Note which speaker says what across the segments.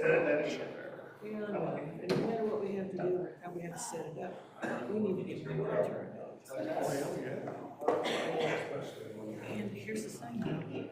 Speaker 1: We all know, and no matter what we have to do, how we have to set it up, we need to get more water. And here's the thing.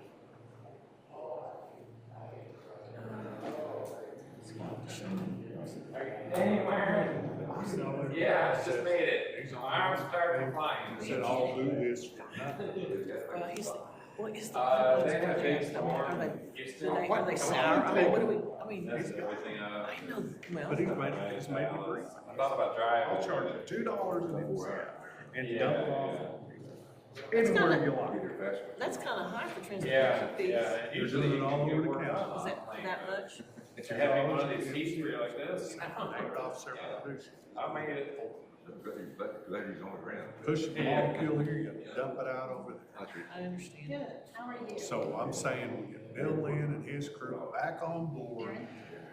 Speaker 2: Yeah, I just made it. Arms start flying.
Speaker 3: Said I'll do this for nothing.
Speaker 1: Well, he's, well, is the.
Speaker 2: Uh, they have big
Speaker 1: Are
Speaker 2: storm.
Speaker 1: they,
Speaker 2: It's
Speaker 1: do they, are they sour? I mean, what do we, I mean,
Speaker 2: That's everything, uh.
Speaker 1: I know, well,
Speaker 3: But he's made, he's made me bring.
Speaker 2: I thought about driving.
Speaker 3: I'll charge you two dollars and four cents and dump it off
Speaker 1: kinda-
Speaker 3: anywhere you like.
Speaker 1: that's kind of high for
Speaker 2: Yeah,
Speaker 1: transportation fees.
Speaker 2: yeah. and Usually you
Speaker 3: doing it all
Speaker 2: can get
Speaker 3: over the
Speaker 2: work.
Speaker 3: county.
Speaker 1: Is that that much?
Speaker 2: If you're having uh, one of these heat where you're like this.
Speaker 3: Knocked off several producers.
Speaker 2: I made it.
Speaker 3: Push the molecule here, you dump it out over there.
Speaker 1: I understand.
Speaker 4: Good, how are you?
Speaker 3: So I'm saying we get Bill Lynn and his crew back on board,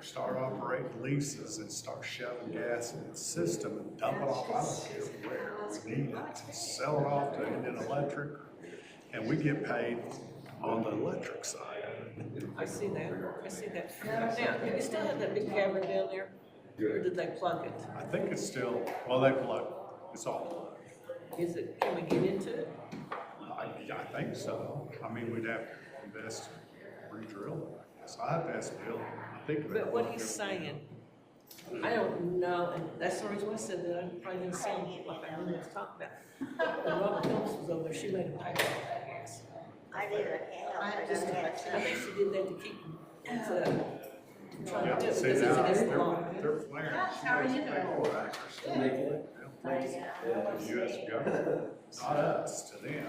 Speaker 3: start operating leases and start shoving gas in the system and dump it off. I don't care where we need it, sell it off to Indian Electric, and we get paid on the electric side.
Speaker 1: I see that, I see that. Now, you still have that big cavern down there? Or Did they plug it?
Speaker 3: I think it's still, well, they plug, it's all
Speaker 1: Is it, can we get into it?
Speaker 3: plug. I, I think so. I mean, we'd have to invest, re-drill it, I guess. I have to ask Bill. I think. they
Speaker 1: But what
Speaker 3: plug
Speaker 1: he's
Speaker 3: it.
Speaker 1: saying, I don't know, and that's the reason why I said that, I probably didn't sound like I knew what I was talking about. When Robin Phillips was over there, she made a paper with that gas.
Speaker 5: I did a
Speaker 1: I
Speaker 5: half,
Speaker 1: had
Speaker 5: but
Speaker 1: just,
Speaker 5: I had
Speaker 1: I think she did that to keep, to, trying
Speaker 3: Yeah,
Speaker 1: to do it, because
Speaker 3: see,
Speaker 1: it's
Speaker 3: now,
Speaker 1: against the law.
Speaker 3: they're, they're flaring.
Speaker 4: How are you doing?
Speaker 3: The US government, not us, to them,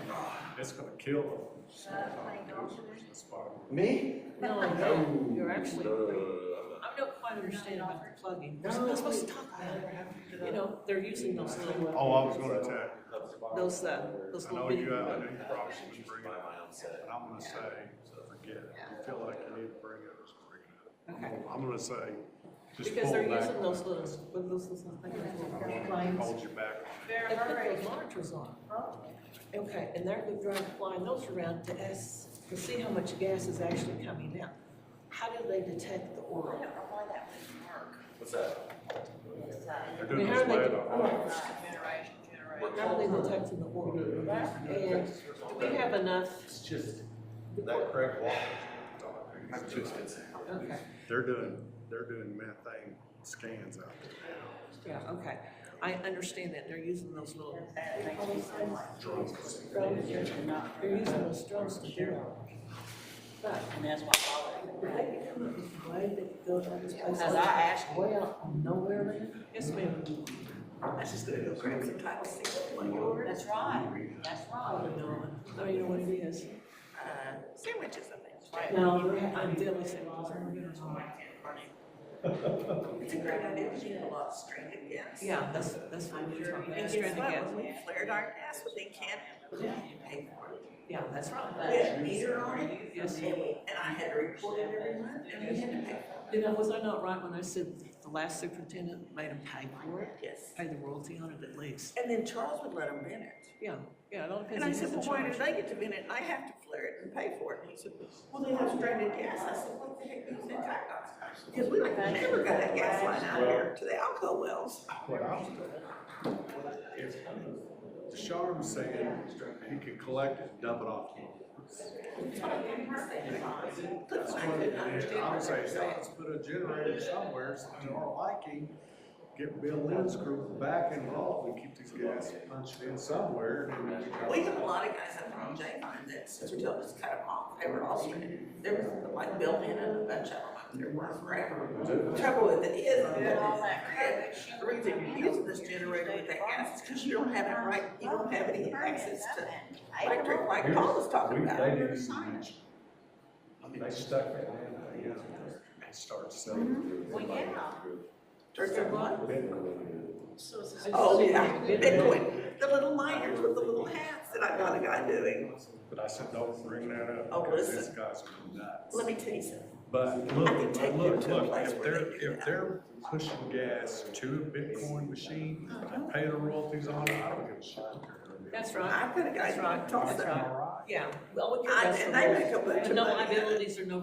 Speaker 3: it's gonna kill them.
Speaker 6: Me?
Speaker 1: No, I know, you're actually, I don't quite understand about the plugging, we're not supposed to talk about it. You know, they're using those little,
Speaker 3: Oh, I was gonna tell, you,
Speaker 1: those, uh, those
Speaker 3: I know
Speaker 1: little bitty.
Speaker 3: you, I know you probably should bring it up, but I'm gonna say, forget it. You feel like you need to bring it, just bring it
Speaker 1: Okay.
Speaker 3: up. I'm gonna say, just
Speaker 1: Because they're
Speaker 3: pull
Speaker 1: using
Speaker 3: back,
Speaker 1: those little, with those little things.
Speaker 3: hold you back.
Speaker 1: They put those monitors on. Okay, and they're going to fly those around to us to see how much gas is actually coming out. How do they detect the
Speaker 5: I
Speaker 1: oil?
Speaker 5: don't know why that wouldn't work.
Speaker 6: What's that?
Speaker 5: It's, uh,
Speaker 3: They're
Speaker 1: I mean,
Speaker 3: doing
Speaker 1: how
Speaker 3: this
Speaker 1: do
Speaker 3: way
Speaker 1: they
Speaker 3: at all.
Speaker 4: Generation, generation.
Speaker 1: How are they detecting the oil? And do we have enough?
Speaker 6: It's just that correct wall. I'm
Speaker 1: oh.
Speaker 6: too expensive.
Speaker 1: Okay,
Speaker 3: They're doing, they're doing methane scans out there.
Speaker 1: yeah, okay. I understand that they're using those little. They're using those drones to do it. But
Speaker 4: And that's why.
Speaker 1: they come up with a way that goes on this place.
Speaker 4: As I asked you.
Speaker 1: Way out on nowhere land. Yes, ma'am. That's just the Hill Crimson Title Six.
Speaker 4: That's right, that's right.
Speaker 1: Oh, you know what it is?
Speaker 5: Sandwiches and things.
Speaker 1: No, I'm deadly sandwiches.
Speaker 5: It's a great idea, we need a lot of stranded gas.
Speaker 1: Yeah, that's, that's what you're talking about.
Speaker 5: And
Speaker 1: That's
Speaker 5: guess
Speaker 1: stranded
Speaker 5: what,
Speaker 1: gas.
Speaker 5: when we flared our gas, what they can't, we pay for it.
Speaker 1: Yeah, that's
Speaker 5: We
Speaker 1: right.
Speaker 5: had a meter on it, and we, and I had to report it every month, and we had to pay for
Speaker 1: You know, was I not right when I said the last superintendent made them pay for it?
Speaker 5: it. Yes.
Speaker 1: Pay the royalty on it at least.
Speaker 5: And then Charles would let them in it.
Speaker 1: Yeah, yeah, it all depends
Speaker 5: And
Speaker 1: on
Speaker 5: I
Speaker 1: who's
Speaker 5: said,
Speaker 1: in
Speaker 5: well, why do
Speaker 1: charge.
Speaker 5: they get to vent it, and I have to flare it and pay for it? And he said, well, they have stranded gas. I said, what the heck do you think that costs? Because we never got that gas line out here to the alcohol wells.
Speaker 3: What I was doing is, Deshawn was saying he could collect it and dump it off.
Speaker 5: That's why I couldn't understand.
Speaker 3: I
Speaker 5: what
Speaker 3: would
Speaker 5: they
Speaker 3: say,
Speaker 5: were saying.
Speaker 3: let's put a generator somewhere, so to our liking, get Bill Lynn's group back involved and keep these gas punched in somewhere. and then
Speaker 5: We
Speaker 3: we
Speaker 5: have
Speaker 3: got-
Speaker 5: a lot of guys up on J line that since we told us to cut them off, they were all stranded. There was like Bill in and a bunch of them up there were forever. The Trouble with it is, that all that credit, the reason you're using this generator with that gas is because you don't have it right, you don't have any access to electric like Paul was talking
Speaker 3: We-
Speaker 5: about.
Speaker 3: They didn't even mention. I mean, they stuck it in, you know, and started
Speaker 5: Mm-hmm.
Speaker 3: selling.
Speaker 4: Well, yeah.
Speaker 5: There's a what?
Speaker 1: I just
Speaker 5: Oh,
Speaker 1: said
Speaker 5: yeah,
Speaker 1: Bitcoin.
Speaker 5: Bitcoin, the little miners with the little hats that I got a guy doing.
Speaker 3: But I said, don't bring that up.
Speaker 5: Oh,
Speaker 3: because
Speaker 5: listen.
Speaker 3: These guys are nuts.
Speaker 5: Let me tell you something.
Speaker 3: But
Speaker 5: I can
Speaker 3: look,
Speaker 5: take
Speaker 3: but
Speaker 5: you
Speaker 3: look,
Speaker 5: to a
Speaker 3: look,
Speaker 5: place
Speaker 3: if
Speaker 5: where
Speaker 3: they're,
Speaker 5: they do
Speaker 3: if
Speaker 5: that.
Speaker 3: they're pushing gas to a Bitcoin machine,
Speaker 5: Uh-huh.
Speaker 3: and paying the royalties on it, I don't give a shit.
Speaker 1: That's right.
Speaker 5: I've got a guy
Speaker 1: That's right.
Speaker 5: who talks
Speaker 1: That's
Speaker 5: about.
Speaker 1: right. Yeah. Well, we
Speaker 5: I-
Speaker 1: can.
Speaker 5: and they make a bunch of
Speaker 1: No
Speaker 5: money.
Speaker 1: liabilities or no